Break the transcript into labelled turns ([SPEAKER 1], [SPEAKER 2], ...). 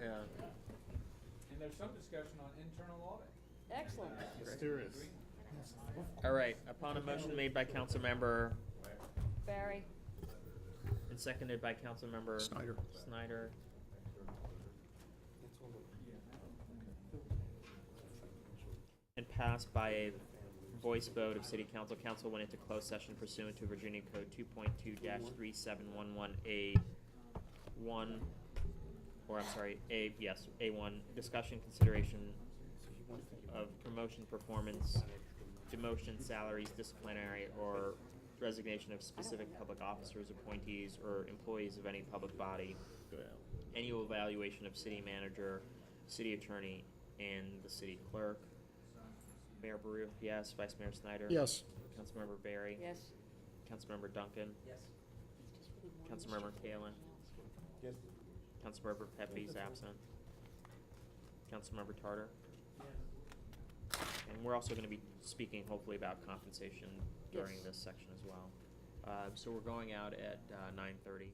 [SPEAKER 1] Yeah.
[SPEAKER 2] And there's some discussion on internal audit.
[SPEAKER 3] Excellent.
[SPEAKER 4] Mysterious.
[SPEAKER 1] All right, upon a motion made by Councilmember
[SPEAKER 3] Barry.
[SPEAKER 1] and seconded by Councilmember
[SPEAKER 5] Snyder.
[SPEAKER 1] Snyder. And passed by a voice vote of City Council. Council went into closed session pursuant to Virginia Code two point two three seven one one A one, or I'm sorry, A, yes, A one, discussion, consideration of promotion, performance, demotion, salaries, disciplinary, or resignation of specific public officers, appointees, or employees of any public body. Annual evaluation of city manager, city attorney, and the city clerk. Mayor Baru, yes. Vice Mayor Snyder?
[SPEAKER 5] Yes.
[SPEAKER 1] Councilmember Barry?
[SPEAKER 3] Yes.
[SPEAKER 1] Councilmember Duncan?
[SPEAKER 3] Yes.
[SPEAKER 1] Councilmember Kalen? Councilmember Pepe's absent. Councilmember Tartar? And we're also gonna be speaking hopefully about compensation during
[SPEAKER 3] Yes.
[SPEAKER 1] this section as well. Uh, so we're going out at, uh, nine thirty.